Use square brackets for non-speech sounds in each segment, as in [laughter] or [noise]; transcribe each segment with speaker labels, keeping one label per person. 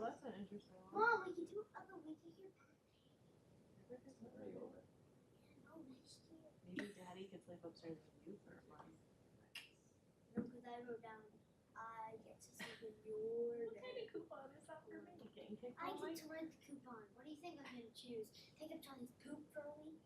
Speaker 1: That's an interesting one.
Speaker 2: Mom, we can do it other we can hear no next year.
Speaker 1: Maybe Daddy could sleep upstairs with you for a month.
Speaker 2: No, because I wrote down I get to sleep in your
Speaker 1: What kind of
Speaker 2: bed.
Speaker 1: coupon is that for me? Getting kicked
Speaker 2: Oh, I
Speaker 1: all
Speaker 2: get
Speaker 1: night?
Speaker 2: to rent the coupon. What do you think I'm gonna choose? Pick up Johnny's poop for a week?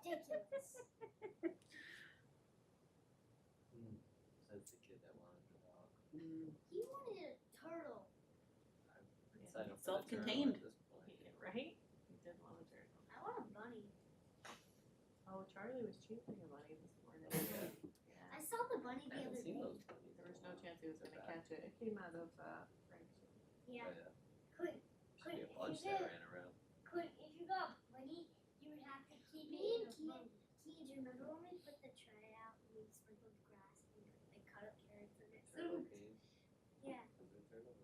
Speaker 2: Ridiculous.
Speaker 3: That's the kid that wanted the dog.
Speaker 2: You wanted a turtle.
Speaker 1: Yeah.
Speaker 3: Sign up for the
Speaker 4: Self-contained.
Speaker 3: journal at this point.
Speaker 1: Yeah, Right? You did want a turtle.
Speaker 2: I want a bunny.
Speaker 1: Oh, Charlie was chasing a bunny this morning.
Speaker 3: Yeah.
Speaker 1: Yeah.
Speaker 2: I saw the bunny
Speaker 3: I
Speaker 2: the
Speaker 3: haven't
Speaker 2: other
Speaker 3: seen
Speaker 2: day.
Speaker 3: those movies.
Speaker 1: There was no chance he was gonna catch it. It came out of, uh, Frank's room.
Speaker 2: Yeah. Quick,
Speaker 3: Should uh, be
Speaker 2: Quick,
Speaker 3: a bunch
Speaker 2: you
Speaker 3: that
Speaker 2: did.
Speaker 3: ran around.
Speaker 2: quick, if you got a bunny, you would have to keep
Speaker 5: Me
Speaker 2: it in
Speaker 5: and
Speaker 2: a
Speaker 5: Keith-
Speaker 2: bunny. Keith, do you remember when we put the tray out and we sprinkled the grass and we like, cut up carrots and it?
Speaker 3: Turtle Cave.
Speaker 2: Yeah.
Speaker 3: Was there a turtle?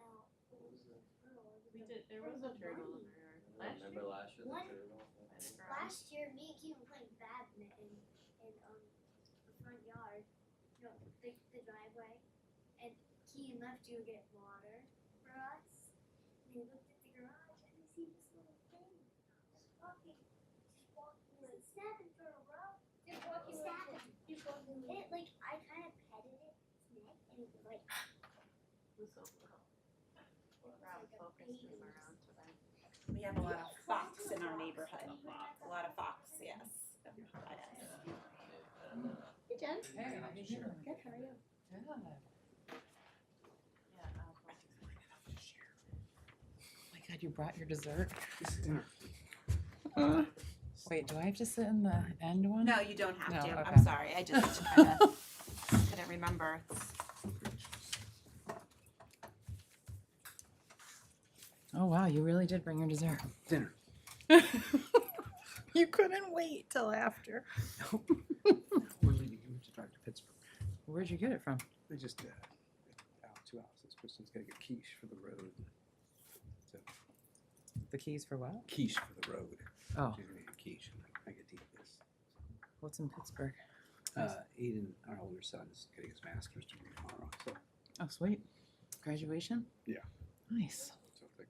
Speaker 2: No,
Speaker 3: What was that?
Speaker 2: turtle.
Speaker 1: We did, there was a turtle in our yard.
Speaker 3: I
Speaker 1: Last
Speaker 3: remember
Speaker 1: year,
Speaker 3: last year, the
Speaker 2: What?
Speaker 3: turtle.
Speaker 1: by the garage.
Speaker 2: Last year, me and Keith were playing badminton in, in um, the front yard, no, the, the driveway, and Keith left to get water for us. And he looked at the garage and he see this little thing just walking, just walking, like, snapping for a row. Just walking, snapping, just walking. And it, like I kind of petted it, its neck, and it was like,
Speaker 1: was so little. Rob focused him around today.
Speaker 4: We have a lot of fox in our neighborhood. A lot of fox, yes.
Speaker 3: I don't know.
Speaker 4: Hey,
Speaker 6: [laughs]
Speaker 2: [laughs]
Speaker 4: Jen.
Speaker 3: Hey, how you doing?
Speaker 4: Good, how are you?
Speaker 1: Yeah, uh, Rob focused [laughs] him.
Speaker 7: Oh my god, you brought your dessert? Wait, do I have to sit in the end one?
Speaker 4: No, you don't have
Speaker 7: No,
Speaker 4: to. I'm
Speaker 7: okay.
Speaker 4: sorry. I just kinda couldn't remember.
Speaker 7: [laughs]
Speaker 4: [laughs]
Speaker 7: Oh wow, you really did bring your dessert.
Speaker 6: Dinner.
Speaker 7: You couldn't wait till after.
Speaker 6: We're leaving. We have to drive to Pittsburgh.
Speaker 7: [laughs] Where'd you get it from?
Speaker 6: They just uh, out two hours. This person's gonna get quiche for the road.
Speaker 7: The keys for what?
Speaker 6: Quiche for the road.
Speaker 7: Oh,
Speaker 6: She's gonna get quiche. I'm like, I get to eat this.
Speaker 7: what's in Pittsburgh?
Speaker 6: Uh, Aiden, our older son, is getting his master's degree tomorrow. So,
Speaker 7: Oh, sweet. Graduation?
Speaker 6: Yeah.
Speaker 7: Nice.
Speaker 6: so it's like,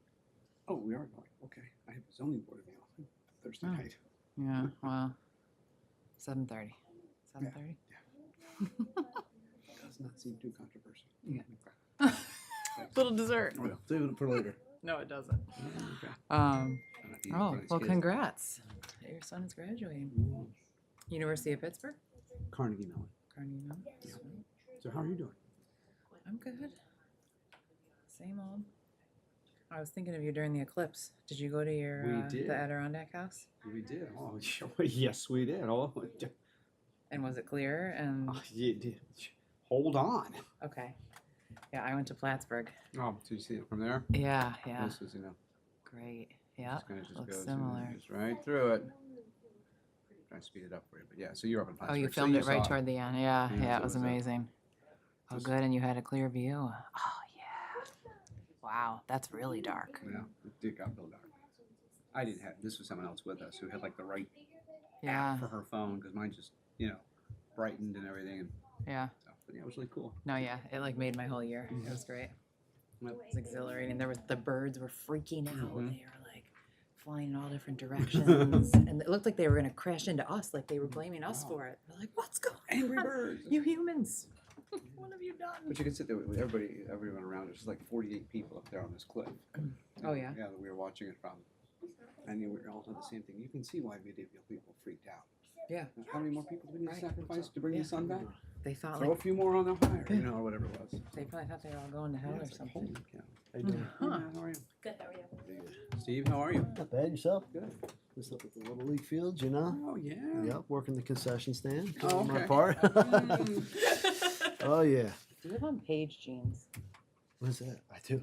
Speaker 6: oh, we are going. Okay, I have a zoning board meeting on Thursday
Speaker 7: Oh.
Speaker 6: night.
Speaker 7: Yeah, wow. Seven thirty. Seven thirty?
Speaker 6: Does not seem too controversial.
Speaker 7: Yeah.
Speaker 6: Okay.
Speaker 7: [laughs] Little dessert.
Speaker 6: Well, save it for [laughs] later.
Speaker 7: No, it doesn't.
Speaker 6: Okay.
Speaker 7: Um,
Speaker 6: I'm not eating in front
Speaker 7: oh,
Speaker 6: of these
Speaker 7: well,
Speaker 6: kids.
Speaker 7: congrats. Your son is graduating.
Speaker 6: Mm,
Speaker 7: University of Pittsburgh?
Speaker 6: Carnegie Mellon.
Speaker 7: Carnegie Mellon.
Speaker 6: Yeah. So how are you doing?
Speaker 7: I'm good. Same old. I was thinking of you during the eclipse. Did you go to your
Speaker 6: We
Speaker 7: uh,
Speaker 6: did.
Speaker 7: the Adirondack house?
Speaker 6: We did. Oh, [laughs] yes, we did. Oh, [laughs]
Speaker 7: And was it clear? And
Speaker 6: Oh, you did. Hold on.
Speaker 7: okay, yeah, I went to Plattsburgh.
Speaker 6: Oh, did you see it from there?
Speaker 7: Yeah, yeah,
Speaker 6: This is, you know,
Speaker 7: great. Yeah,
Speaker 6: it's gonna just
Speaker 7: looks
Speaker 6: goes and
Speaker 7: similar.
Speaker 6: just right through it. Trying to speed it up for you, but yeah. So you're up in
Speaker 7: Oh,
Speaker 6: Plattsburgh.
Speaker 7: you
Speaker 6: so
Speaker 7: filmed it right
Speaker 6: saw
Speaker 7: toward the end. Yeah,
Speaker 6: Yeah,
Speaker 7: yeah, it was
Speaker 6: so it was a-
Speaker 7: amazing. Oh,
Speaker 6: just-
Speaker 7: good, and you had a clear view. Oh yeah. Wow, that's really dark.
Speaker 6: Yeah, it did got real dark. I didn't have. This was someone else with us who had like the right app
Speaker 7: Yeah,
Speaker 6: for her phone because mine just, you know, brightened and everything and
Speaker 7: yeah.
Speaker 6: stuff. But yeah, it was really cool.
Speaker 7: No, yeah, it like made my whole year. It was great. It's exhilarating. There was the birds were freaking out.
Speaker 6: Mhm.
Speaker 7: They were like flying in all different [laughs] directions, and it looked like they were gonna crash into us. Like they were blaming us
Speaker 6: Wow.
Speaker 7: for it. They're like, "What's going
Speaker 6: Angry
Speaker 7: [laughs] on?
Speaker 6: birds.
Speaker 7: You humans! what have you done?"
Speaker 6: But you can sit there with everybody, everyone around. There's like 48 people up there on this cliff.
Speaker 7: Oh, yeah?
Speaker 6: Yeah, that we were watching it from. And you were all doing the same thing. You can see why video people freaked out. Uh,
Speaker 7: Yeah.
Speaker 6: How many more people do we need
Speaker 7: Right.
Speaker 6: to sacrifice to bring
Speaker 7: Yeah.
Speaker 6: the sun back?
Speaker 7: They thought
Speaker 6: Throw a
Speaker 7: like
Speaker 6: few more on the fire,
Speaker 7: Yeah.
Speaker 6: you know, or whatever it was.
Speaker 7: they probably thought they were all going to hell
Speaker 6: Yeah,
Speaker 7: or
Speaker 6: it's like, holy
Speaker 7: something. Mm-hmm.
Speaker 6: cow. How you doing?
Speaker 7: Huh.
Speaker 6: Yeah, how are you?
Speaker 4: Good, how are you?
Speaker 6: Steve, how are you?
Speaker 8: Not bad yourself.
Speaker 6: Good.
Speaker 8: Just up at the Little League Fields, you know?
Speaker 6: Oh, yeah.
Speaker 8: Yep, working the concession stand.
Speaker 6: Oh,
Speaker 8: doing my
Speaker 6: okay.
Speaker 8: part. oh, yeah.
Speaker 7: Do you live on page jeans?
Speaker 8: What's that? I do.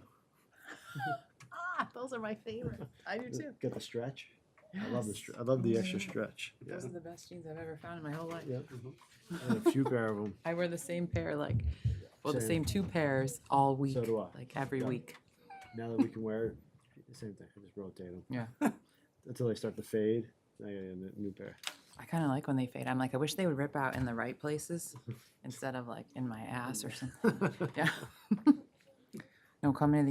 Speaker 7: Ah, those are my favorite. I do too.
Speaker 8: Got the stretch. [laughs] I love the str- I love the
Speaker 7: Yes.
Speaker 8: extra stretch. Yeah.
Speaker 7: Those are the best jeans I've ever found in my whole life.
Speaker 8: Yep. And
Speaker 7: [laughs]
Speaker 8: a few pair of them.
Speaker 7: I wear the same pair, like, well, the same
Speaker 8: Same.
Speaker 7: two pairs all week,
Speaker 8: So do I.
Speaker 7: like every
Speaker 8: Yeah.
Speaker 7: week.
Speaker 8: Now that we can wear the same thing. I just rotate them.
Speaker 7: Yeah.
Speaker 8: [laughs] Until they start to fade. Now you get a new pair.
Speaker 7: I kind of like when they fade. I'm like, I wish they would rip out in the right [laughs]
Speaker 8: [laughs]
Speaker 7: places instead of like in my ass or something. Yeah. No, coming to the